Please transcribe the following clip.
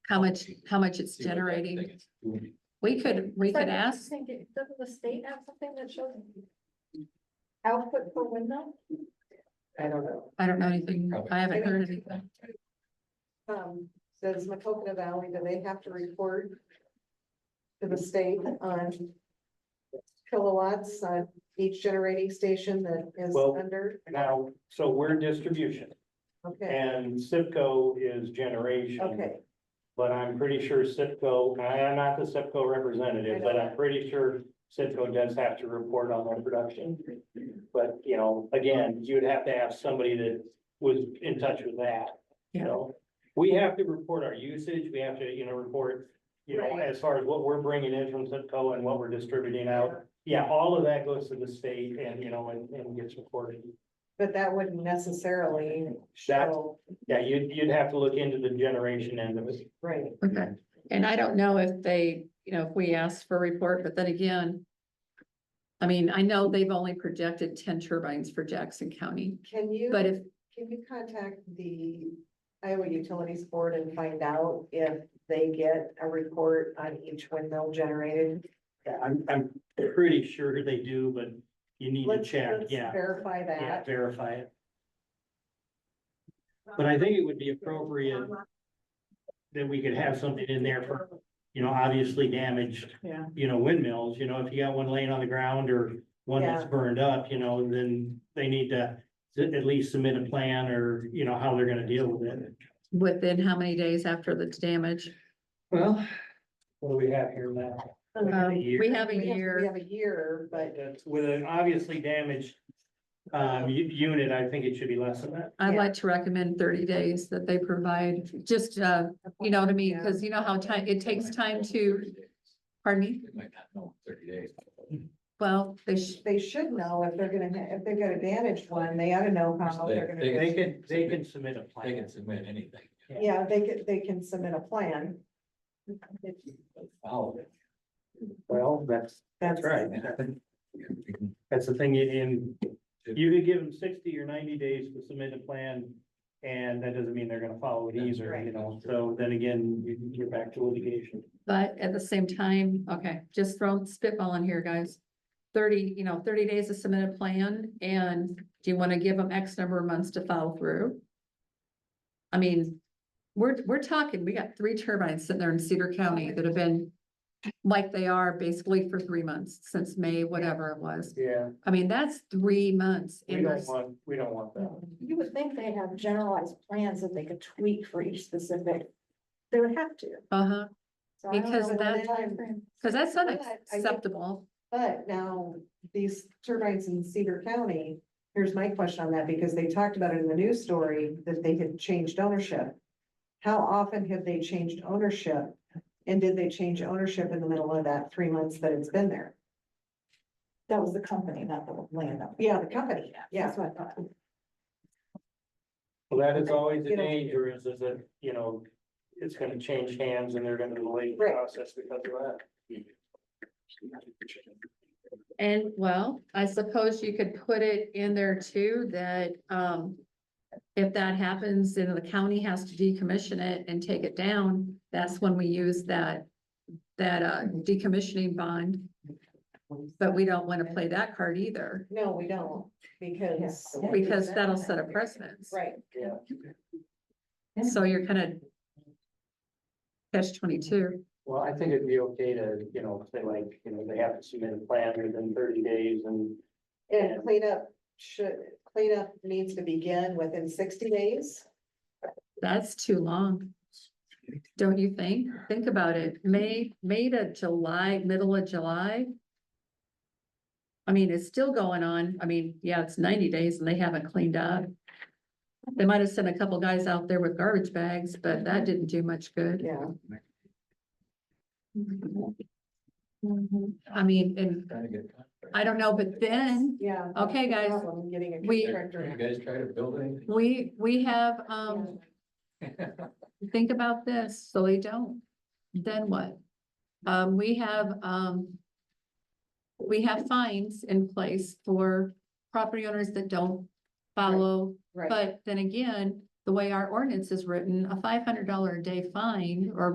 how much, how much it's See what that generating. thing is doing. We could, we could So I ask, think it- Doesn't the state have something that shows? Output per window? I don't know. I don't know anything, Probably. I haven't heard anything. Um, says Macokina Valley, do they have to report to the state on kilowatts on each generating station that is Well- under? Now, so we're distribution Okay, and CIPCO is okay, generation. But I'm pretty sure CIPCO, and I am not the CIPCO representative, but I'm pretty sure CIPCO does have to report on their production. But, you know, again, you'd have to have somebody that was in touch with that, you Yeah. know? We have to report our usage, we have to, you know, report, you know, Right. as far as what we're bringing in from CIPCO and what we're distributing out. Yeah, all of that goes to the state and, you know, and, and gets reported. but that wouldn't necessarily That, show, yeah, you'd, you'd have to look into the generation end of it. right, Okay, and I don't know if they, you know, if we asked for a report, but then again. I mean, I know they've only projected ten turbines for Jackson County, can you? but if, Can you contact the Iowa Utilities Board and find out if they get a report on each windmill generated? I'm, I'm pretty sure they do, but you need to Let's check, let's yeah, Verify yeah, that. verify it. But I think it would be appropriate that we could have something in there for, you know, obviously damaged, Yeah. you know, windmills, you know, if you got one laying on the ground or one that's Yeah. burned up, you know, then they need to s- at least submit a plan or, you know, how they're gonna deal with it. within how many days after the damage? Well, what do we have here now? Um, We have a We We year, have a year, but That's with an obviously damaged um u- unit, I think it should be less than that. I'd yeah. like to recommend thirty days that they provide, just, uh, you know what I mean? Cause you know how time, it takes time to, pardon me, They might not know in thirty days. well, they should, they should know if they're gonna, ha- if they've got a damaged one, they ought to know how They- they're they- gonna. They can, they can submit a They can plan. submit anything. Yeah, they could, they can submit a plan. but Follow it. Well, that's, That's That's the thing, in, you could give them sixty or ninety days to submit a plan. And that doesn't mean they're gonna follow it either, you know, so then again, you you're back to litigation. but at the same time, okay, just throw spitball in here, guys. Thirty, you know, thirty days to submit a plan and do you wanna give them X number of months to follow through? I mean, we're, we're talking, we got three turbines sitting there in Cedar County that have been like they are basically for three months since May, whatever it was. Yeah, I mean, that's three months. we in don't this- want, we don't want that. You would think they have generalized plans that they could tweak for each specific. They would have to. Uh-huh, So I don't Because know that- what timeframe- cause that's But I think- unacceptable. But now, these turbines in Cedar County, here's my question on that, because they talked about it in the news story, that they had changed ownership. How often have they changed ownership? And did they change ownership in the middle of that three months that it's been there? That was the company, not the land. Yeah, the company, yeah. That's what I thought. Well, that is always the You know- danger is, is that, you know, it's gonna change hands and they're gonna delay the Right. process because of that. And well, I suppose you could put it in there too, that, um, if that happens, then the county has to decommission it and take it down, that's when we use that, that, uh, decommissioning bond, but we don't wanna play that card either, No, we don't, because. because that'll set a precedence. Right. Yeah. So you're kind of catch twenty-two, Well, I think it'd be okay to, you know, say like, you know, they have to submit a plan within thirty days and. And cleanup should, cleanup needs to begin within sixty days. that's too long. Don't you think? Think about it, May, May to July, middle of July. I mean, it's still going on, I mean, yeah, it's ninety days and they haven't cleaned up. They might have sent a couple guys out there with garbage bags, but that didn't do much good. Yeah. I mean, and Trying to get. I don't know, but then, Yeah. that's Okay, the guys, problem, Getting a we- contractor. You guys try to build anything? we, we have, um, think about this, so they don't, then what? Um, we have, um. We have fines in place for property owners that don't follow, Right. but then again, the way our ordinance is written, a five hundred dollar a day fine or